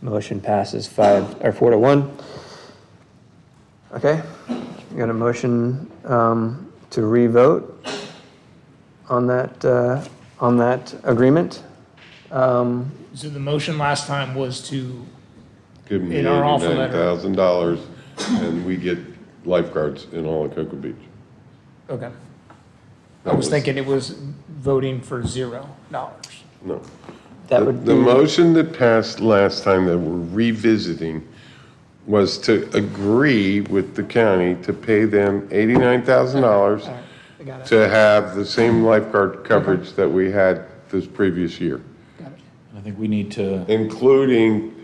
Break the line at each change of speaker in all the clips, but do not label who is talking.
Motion passes five, or four to one. Okay, you got a motion um, to revote on that, uh, on that agreement? Um,
So the motion last time was to,
Give them the
In our offer
eighty-nine
letter.
thousand dollars, and we get lifeguards in all of Cocoa Beach.
okay. I
That
was thinking it was voting for zero dollars.
No.
That
The-
would
The
be,
motion that passed last time that we're revisiting was to agree with the county to pay them eighty-nine thousand dollars
All right, I got it,
to have the same lifeguard coverage that we had this previous year,
got it.
I think we need to,
including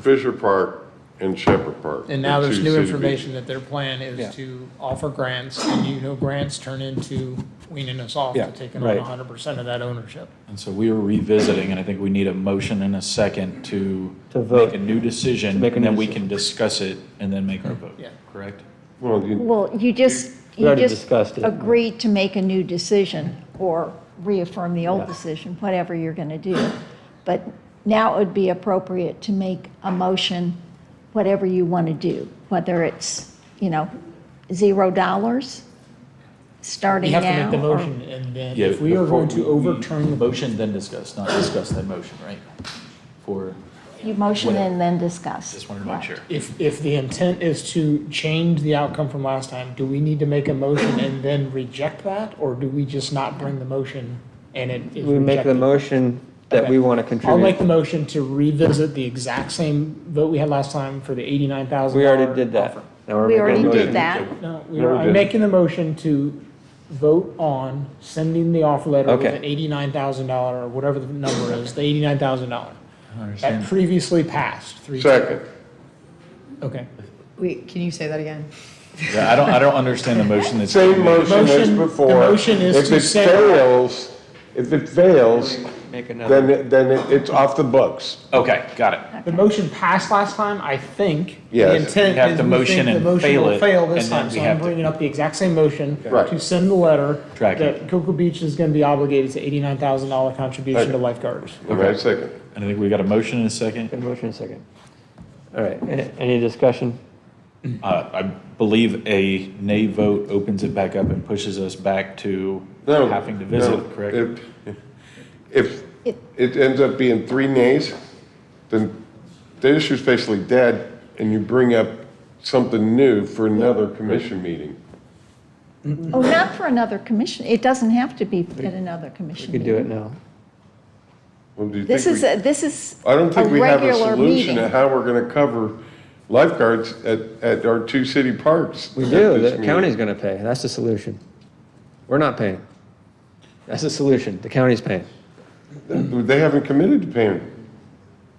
Fisher Park and Shepherd Park.
And now
the
there's
two
new
city beaches.
information that their plan
Yeah.
is to offer grants, and you know grants turn into weaning us off
Yeah,
to taking on
right.
hundred percent of that ownership.
and so we are revisiting, and I think we need a motion and a second to
To vote.
make a new decision,
make a
and then
new
we can discuss it and then make our vote.
Yeah.
Correct?
Well, you-
Well, you just,
We
you
already
just
discussed it.
agreed to make a new decision or reaffirm the
Yeah.
old decision, whatever you're going to do. But now it would be appropriate to make a motion, whatever you want to do, whether it's, you know, zero dollars,
We
starting
have
now.
to make the
or-
motion, and then if we are going to overturn the
Motion, then discuss, not discuss that motion, right? For,
You motion
Whatever.
and then discuss.
just wanted to make
Right.
sure.
If, if the intent is to change the outcome from last time, do we need to make a motion and then reject that? Or do we just not bring the motion and it is
we make the
rejected?
motion that we
Okay.
want to
I'll make the
contribute.
motion to revisit the exact same vote we had last time for the eighty-nine thousand.
We already did that. Now we're
We
making a
already
motion.
did that.
No, we
No, we
are, I'm
didn't.
making the motion to vote on sending the offer letter with
Okay.
an eighty-nine thousand dollar or whatever the number is, the eighty-nine thousand dollar.
I
That
understand.
previously passed three.
second,
Okay.
Wait, can you say that again?
Yeah, I don't, I don't understand the motion that's.
same motion as
Motion- the
before.
motion is to
If
send-
it fails, if it fails,
Make
then,
another,
it- then it- it's off the books.
Okay, got it.
The motion passed last time, I think. The
Yes.
intent
We have
is
to
we
motion
think the
and
motion
fail
will
it,
fail this
and then
time,
we
so
have
I'm
to-
bringing up the exact same motion
Right.
to send the letter
Track
that Cocoa Beach is gonna be obligated to eighty-nine thousand dollar contribution to lifeguards.
Right, second.
And I think we got a motion and a second.
Good motion second. All right, a- any discussion?
Uh, I believe a nay vote opens it back up and pushes us back to
No,
having to
no.
visit, correct?
If- If
It-
it ends up being three nays, then the issue's basically dead, and you bring up something new for another commission meeting.
Oh, not for another commission. It doesn't have to be at another commission
We could do it
meeting.
now.
Well, do you
This
think
is,
we-
a- this is
I don't
a
think we have a
regular
solution to
meeting.
how we're gonna cover lifeguards at, at our two city parks.
We
at
do,
this
the
meeting.
county's gonna pay, that's the solution. We're not paying. That's the solution, the county's paying.
They haven't committed to paying.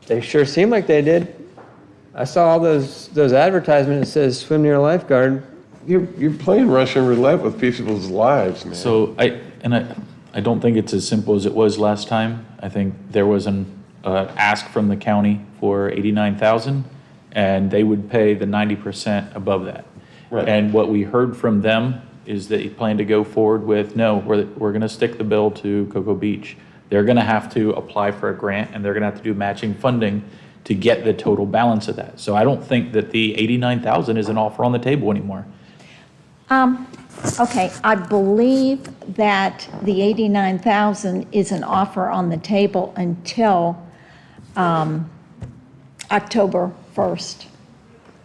They sure seem like they did. I saw all those, those advertisements that says swim near a lifeguard.
You're, you're playing Russian roulette with people's lives, man.
So I, and I, I don't think it's as simple as it was last time. I think there was an, uh, ask from the county for eighty-nine thousand, and they would pay the ninety percent above that.
Right.
And what we heard from them is they plan to go forward with, no, we're, we're gonna stick the bill to Cocoa Beach. They're gonna have to apply for a grant, and they're gonna have to do matching funding to get the total balance of that. So I don't think that the eighty-nine thousand is an offer on the table anymore.
Um, okay, I believe that the 89,000 is an offer on the table until, um, October 1st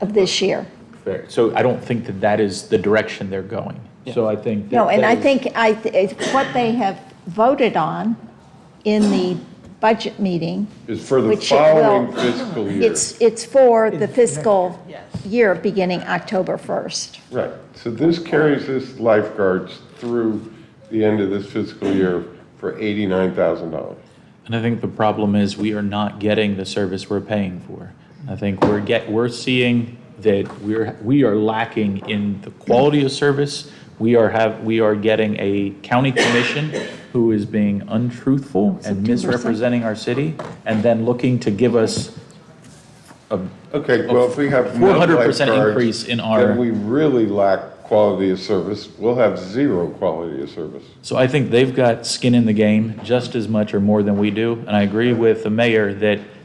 of this year.
Fair. So I don't think that that is the direction they're going. So I think. that
No, and
that
I
is-
think, I, th- it's what they have voted on in the budget meeting,
It's for the
Which it will-
following fiscal year.
it's, it's for the fiscal year beginning October 1st.
Right, so this carries this lifeguards through the end of this fiscal year for eighty-nine thousand dollars.
And I think the problem is we are not getting the service we're paying for. I think we're get, we're seeing that we're, we are lacking in the quality of service. We are have, we are getting a county commission who is being untruthful and misrepresenting our city and then looking to give us
Okay, well, if we have no
400%
lifeguards,
increase in our-
Then we really lack quality of service, we'll have zero quality of service.
So I think they've got skin in the game just as much or more than we do. And I agree with the mayor that